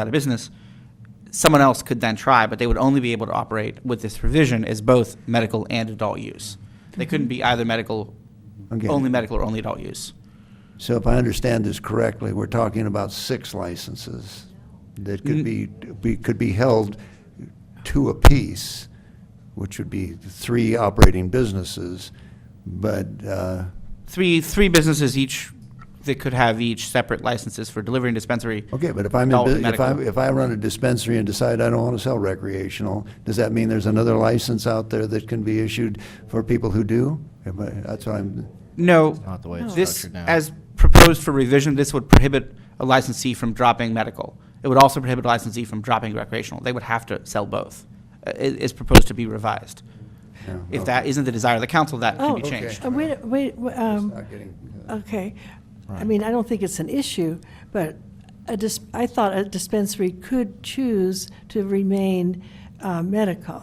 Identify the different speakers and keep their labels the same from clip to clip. Speaker 1: out of business, someone else could then try, but they would only be able to operate with this provision as both medical and adult use. They couldn't be either medical,
Speaker 2: Okay.
Speaker 1: only medical or only adult use.
Speaker 2: So if I understand this correctly, we're talking about six licenses that could be, be, could be held two apiece, which would be three operating businesses, but, uh,
Speaker 1: Three, three businesses each, they could have each separate licenses for delivery and dispensary.
Speaker 2: okay, but if I'm,
Speaker 1: Adult
Speaker 2: in bu- if I,
Speaker 1: medical.
Speaker 2: if I run a dispensary and decide I don't want to sell recreational, does that mean there's another license out there that can be issued for people who do? Am I- That's what I'm,
Speaker 1: No,
Speaker 3: Not the way it's
Speaker 1: this,
Speaker 3: structured now.
Speaker 1: as proposed for revision, this would prohibit a licensee from dropping medical. It would also prohibit a licensee from dropping recreational. They would have to sell both. Uh, It is proposed to be revised.
Speaker 2: Yeah,
Speaker 1: If
Speaker 3: Oh.
Speaker 1: that isn't the desire of the council, that can be
Speaker 2: Oh, okay.
Speaker 1: changed.
Speaker 4: Uh, Wait, wait, w- um,
Speaker 2: not getting.
Speaker 4: okay. I mean, I don't think it's an issue, but a dis, I thought a dispensary could choose to remain uh, medical.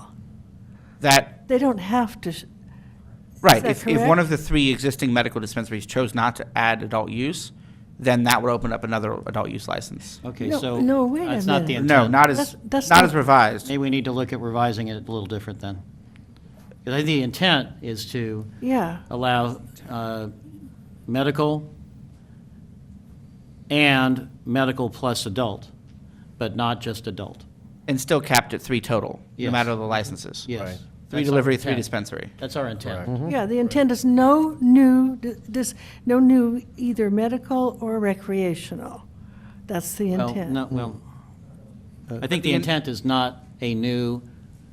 Speaker 1: That
Speaker 4: They don't have to, sh-
Speaker 1: Right,
Speaker 4: that
Speaker 1: if, if one
Speaker 4: correct?
Speaker 1: of the three existing medical dispensaries chose not to add adult use, then that would open up another adult use license.
Speaker 3: Okay,
Speaker 4: No,
Speaker 3: so.
Speaker 4: no, wait a
Speaker 3: That's not the
Speaker 4: minute.
Speaker 3: intent.
Speaker 1: No, not as,
Speaker 4: That's-
Speaker 1: not
Speaker 4: that's not-
Speaker 1: as revised.
Speaker 3: Maybe we need to look at revising it a little different then. Because I think the intent is to
Speaker 4: yeah,
Speaker 3: allow uh, medical and medical plus adult, but not just adult.
Speaker 1: And still capped at three total, no
Speaker 3: Yes.
Speaker 1: matter the licenses.
Speaker 3: Yes.
Speaker 1: Three
Speaker 3: That's our
Speaker 1: delivery, three
Speaker 3: intent.
Speaker 1: dispensary.
Speaker 3: That's our intent.
Speaker 4: yeah, the intent is no new, d- dis, no new either medical or recreational. That's the
Speaker 3: Well,
Speaker 4: intent.
Speaker 3: no, well, I
Speaker 1: but
Speaker 3: think the
Speaker 1: in-
Speaker 3: intent is not a new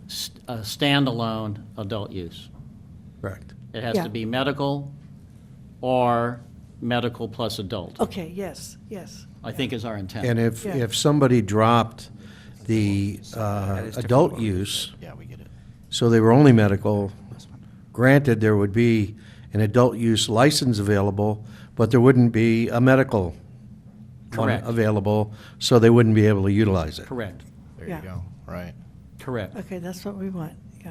Speaker 3: st- uh, standalone adult use.
Speaker 5: Correct.
Speaker 3: It has
Speaker 4: Yeah.
Speaker 3: to be medical or medical plus adult,
Speaker 4: Okay, yes, yes.
Speaker 3: I think is our intent.
Speaker 5: And if,
Speaker 4: Yeah.
Speaker 5: if somebody dropped the uh,
Speaker 1: is different.
Speaker 5: adult use,
Speaker 3: Yeah, we get it.
Speaker 5: so they were only medical, granted, there would be an adult use license available, but there wouldn't be a medical one
Speaker 3: Correct.
Speaker 5: available, so they wouldn't be able to utilize it.
Speaker 3: Correct,
Speaker 6: There
Speaker 4: Yeah.
Speaker 6: you go. Right.
Speaker 3: correct.
Speaker 4: Okay, that's what we want, yeah,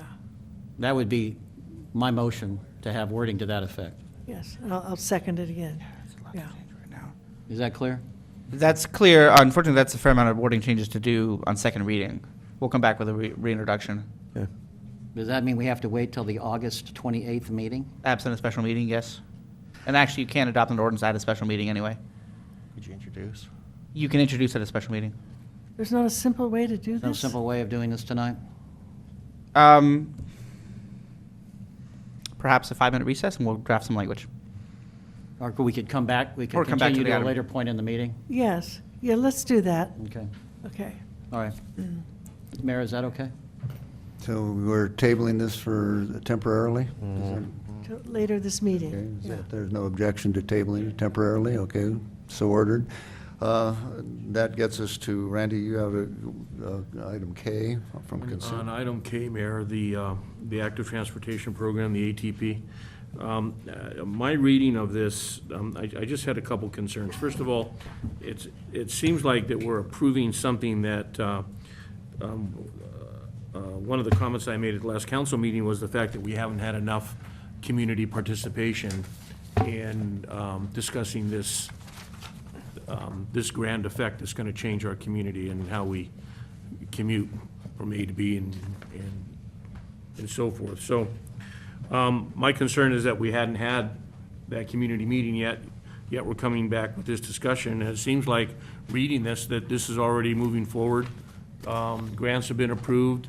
Speaker 3: That would be my motion, to have wording to that effect.
Speaker 4: yes. And I'll, I'll second it again, yeah.
Speaker 3: Is that clear?
Speaker 1: That's clear. Unfortunately, that's a fair amount of wording changes to do on second reading. We'll come back with a re- reintroduction.
Speaker 5: Yeah.
Speaker 3: Does that mean we have to wait till the August 28th meeting?
Speaker 1: Absent a special meeting, yes. And actually, you can't adopt an ordinance at a special meeting anyway.
Speaker 6: Could you introduce?
Speaker 1: You can introduce at a special meeting.
Speaker 4: There's not a simple way to do this?
Speaker 3: No simple way of doing this tonight?
Speaker 1: Um, perhaps a five-minute recess, and we'll draft some language.
Speaker 3: Or could we could come back, we
Speaker 1: Or
Speaker 3: could
Speaker 1: come back to
Speaker 3: continue
Speaker 1: the
Speaker 3: to a
Speaker 1: item.
Speaker 3: later point in the meeting?
Speaker 4: Yes, yeah, let's do that,
Speaker 3: Okay,
Speaker 4: okay.
Speaker 3: all right.
Speaker 4: Mm.
Speaker 3: Mayor, is that okay?
Speaker 2: So we're tabling this for temporarily? Is that-
Speaker 4: Till Later this
Speaker 2: Okay,
Speaker 4: meeting,
Speaker 2: is
Speaker 4: yeah.
Speaker 2: that- There's no objection to tabling it temporarily, okay, so ordered. Uh, That gets us to, Randy, you have a, uh, item K from
Speaker 7: On
Speaker 2: consent.
Speaker 7: item K, Mayor, the, uh, the active transportation program, the ATP, um, uh, my reading of this, um, I I just had a couple concerns. First of all, it's, it seems like that we're approving something that uh, um, uh, one of the comments I made at the last council meeting was the fact that we haven't had enough community participation in um, discussing this, um, this grand effect that's going to change our community and how we commute from A to B and, and and so forth. So um, my concern is that we hadn't had that community meeting yet, yet we're coming back with this discussion. And it seems like, reading this, that this is already moving forward. Um, Grants have been approved.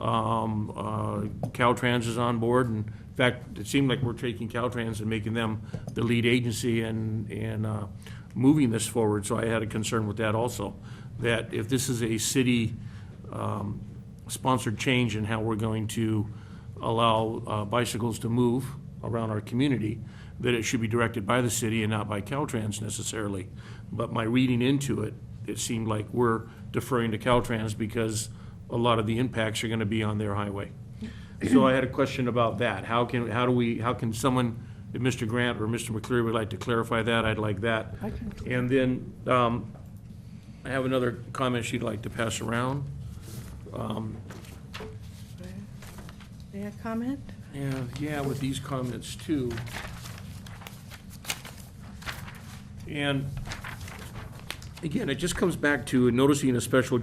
Speaker 7: Um, uh, Caltrans is on board. And in fact, it seemed like we're taking Caltrans and making them the lead agency and, and uh, moving this forward. So I had a concern with that also, that if this is a city um, sponsored change in how we're going to allow uh, bicycles to move around our community, that it should be directed by the city and not by Caltrans necessarily. But my reading into it, it seemed like we're deferring to Caltrans because a lot of the impacts are going to be on their highway. So I had a question about that. How can, how do we, how can someone, if Mr. Grant or Mr. McCleary would like to clarify that, I'd like that. And then um, I have another comment she'd like to pass around.
Speaker 4: May I comment?
Speaker 7: Yeah, yeah, with these comments too. And again, it just comes back to noticing a special